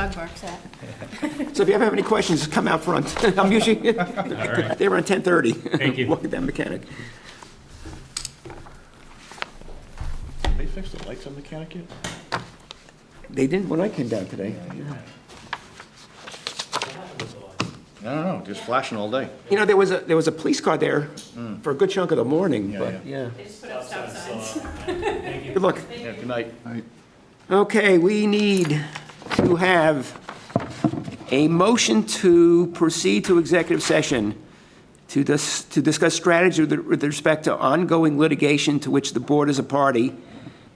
Mark's at. So if you ever have any questions, just come out front. I'm usually, right. they're on 10:30. Thank you. Look at that mechanic. They fixed the lights on the Connecticut? They didn't when I came down today. I don't know, just flashing all day. You know, there was a, there was a police car there Mm. for a good chunk of the morning, Yeah, but, yeah. They just put up stop signs. Good luck. Yeah, good night. Okay, we need to have a motion to proceed to executive session to dis, to discuss strategy with with respect to ongoing litigation to which the board is a party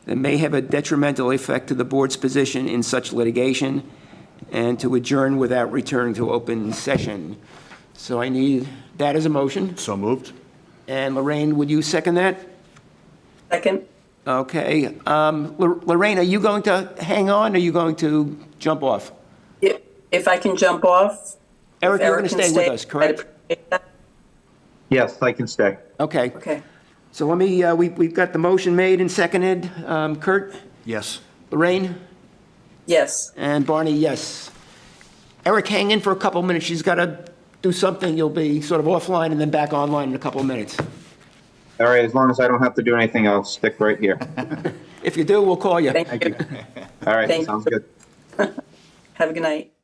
that may have a detrimental effect to the board's position in such litigation, and to adjourn without returning to open session. So I need that as a motion. So moved? And Lorraine, would you second that? Second. Okay. um, Lor- Lorraine, are you going to hang on, or are you going to jump off? If, if I can jump off. Eric, if you're going to can stay with us, I'd correct? appreciate that. Yes, I can stay. Okay. Okay. So let me, uh, we- we've got the motion made and seconded. Um, Kurt, Yes. Lorraine, Yes. and Barney, yes. Eric, hang in for a couple minutes. She's got to do something. You'll be sort of offline and then back online in a couple of minutes. All right, as long as I don't have to do anything, I'll stick right here. If you do, we'll call you. Thank you. All right, Thank sounds you. good. Have a good night.